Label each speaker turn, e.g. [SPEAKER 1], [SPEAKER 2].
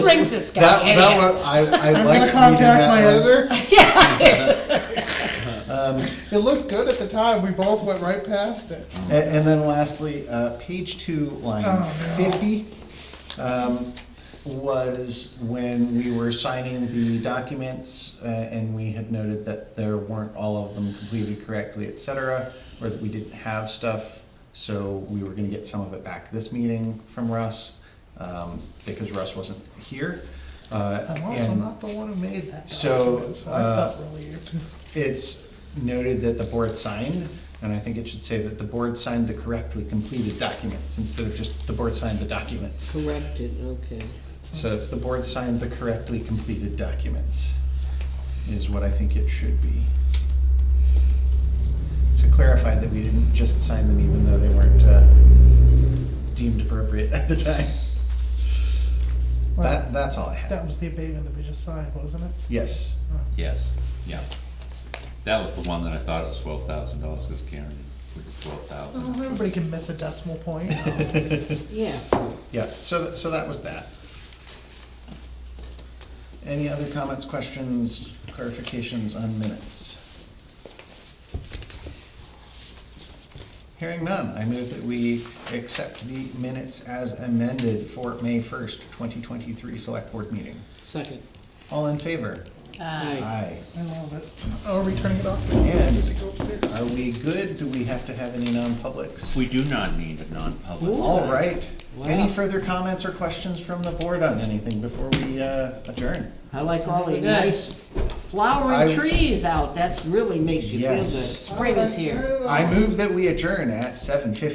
[SPEAKER 1] brings this guy
[SPEAKER 2] That,
[SPEAKER 1] in
[SPEAKER 2] that
[SPEAKER 1] here?
[SPEAKER 2] one, I, I
[SPEAKER 3] I'm
[SPEAKER 2] like
[SPEAKER 3] gonna
[SPEAKER 2] reading
[SPEAKER 3] contact
[SPEAKER 2] that one.
[SPEAKER 3] my editor.
[SPEAKER 1] Yeah.
[SPEAKER 2] Um,
[SPEAKER 3] It looked good at the time. We both went right past it.
[SPEAKER 2] a- and, then lastly, uh, page two, line
[SPEAKER 3] Oh, no.
[SPEAKER 2] fifty, um, was when we were signing the documents, uh, and we had noted that there weren't all of them completed correctly, et cetera, or that we didn't have stuff, so we were gonna get some of it back this meeting from Russ, um, because Russ wasn't here. Uh,
[SPEAKER 3] I'm also
[SPEAKER 2] and-
[SPEAKER 3] Oh, not the one who made that
[SPEAKER 2] So,
[SPEAKER 3] document, so I
[SPEAKER 2] uh,
[SPEAKER 3] felt really you too.
[SPEAKER 2] It's noted that the board signed, and I think it should say that the board signed the correctly completed documents instead of just the board signed the documents.
[SPEAKER 4] Corrected, okay.
[SPEAKER 2] So it's the board signed the correctly completed documents is what I think it should be. To clarify that we didn't just sign them even though they weren't uh, deemed appropriate at the time. That,
[SPEAKER 3] Well,
[SPEAKER 2] that's all I
[SPEAKER 3] that
[SPEAKER 2] have.
[SPEAKER 3] was the abatement that we just signed, wasn't it?
[SPEAKER 2] Yes.
[SPEAKER 5] Yes, yeah. That was the one that I thought was twelve thousand dollars, cause Karen put the twelve thousand.
[SPEAKER 3] Well, everybody can miss a decimal point.
[SPEAKER 4] Yeah,
[SPEAKER 2] Yeah, so, th- so that was that. Any other comments, questions, clarifications on minutes? Hearing none, I move that we accept the minutes as amended for May first, twenty twenty-three select board meeting.
[SPEAKER 4] second.
[SPEAKER 2] All in favor?
[SPEAKER 4] Aye.
[SPEAKER 2] Aye.
[SPEAKER 3] I love it. Oh, are we turning it off?
[SPEAKER 2] And-
[SPEAKER 3] Need to go upstairs.
[SPEAKER 2] Are we good? Do we have to have any non-publics?
[SPEAKER 5] We do not need a non-public.
[SPEAKER 4] Ooh.
[SPEAKER 2] All right. Any
[SPEAKER 4] Wow.
[SPEAKER 2] further comments or questions from the board on anything before we uh, adjourn?
[SPEAKER 4] I like all the
[SPEAKER 1] Good.
[SPEAKER 4] nice
[SPEAKER 2] I-
[SPEAKER 4] flowering trees out, that's really makes you feel good.
[SPEAKER 2] Yes.
[SPEAKER 4] Spring is here.
[SPEAKER 1] here.
[SPEAKER 2] I move that we adjourn at seven fifty.